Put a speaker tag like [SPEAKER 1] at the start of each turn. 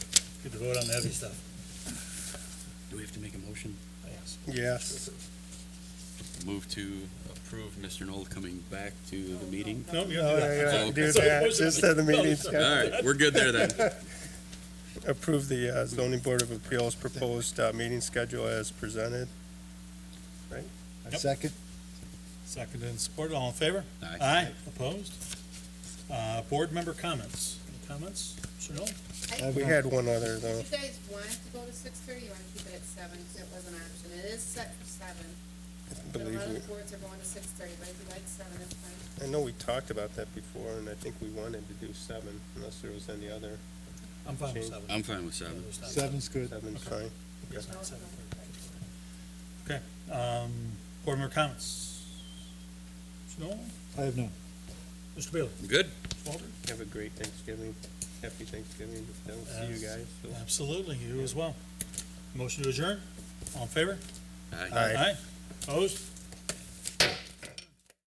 [SPEAKER 1] Good to vote on the heavy stuff.
[SPEAKER 2] Do we have to make a motion?
[SPEAKER 1] Yes.
[SPEAKER 3] Yes.
[SPEAKER 2] Move to approve Mr. Knoll coming back to the meeting?
[SPEAKER 1] No, you
[SPEAKER 3] Oh,
[SPEAKER 1] have to do
[SPEAKER 3] yeah, yeah,
[SPEAKER 2] Okay.
[SPEAKER 3] do
[SPEAKER 1] So
[SPEAKER 3] that,
[SPEAKER 1] motion-
[SPEAKER 3] just at the meetings,
[SPEAKER 2] All
[SPEAKER 3] yeah.
[SPEAKER 2] right, we're good there then.
[SPEAKER 3] Approve the uh, zoning board of appeals proposed uh, meeting schedule as presented.
[SPEAKER 4] I
[SPEAKER 1] Yep.
[SPEAKER 4] second.
[SPEAKER 1] that. Seconded and supported, all in favor?
[SPEAKER 2] Aye.
[SPEAKER 1] opposed? Uh, board member comments, Any comments? Mr. Knoll?
[SPEAKER 4] I've
[SPEAKER 3] We
[SPEAKER 4] got-
[SPEAKER 3] had one other
[SPEAKER 5] Did
[SPEAKER 3] though.
[SPEAKER 5] you guys want to go to six thirty, you wanna keep it at seven, 'cause it was an option, it is set for seven.
[SPEAKER 3] I
[SPEAKER 5] But a
[SPEAKER 3] believe
[SPEAKER 5] lot of the
[SPEAKER 3] we,
[SPEAKER 5] boards are going to six thirty, but if you like seven, it's fine.
[SPEAKER 3] I know we talked about that before and I think we wanted to do seven unless there was any other.
[SPEAKER 1] I'm fine with seven.
[SPEAKER 2] I'm fine with seven.
[SPEAKER 1] There's not-
[SPEAKER 4] Seven's good.
[SPEAKER 3] Seven's fine.
[SPEAKER 1] there's not seven. Okay, um, board member comments? Mr. Knoll,
[SPEAKER 4] I have none.
[SPEAKER 1] Mr. Bailey,
[SPEAKER 2] Good?
[SPEAKER 1] Mr. Walter?
[SPEAKER 3] Have a great Thanksgiving. Happy Thanksgiving. If I Don't see you guys. so-
[SPEAKER 1] Absolutely, you as well. Motion to adjourn, all in favor?
[SPEAKER 2] Aye.
[SPEAKER 3] Aye.
[SPEAKER 1] Aye, opposed?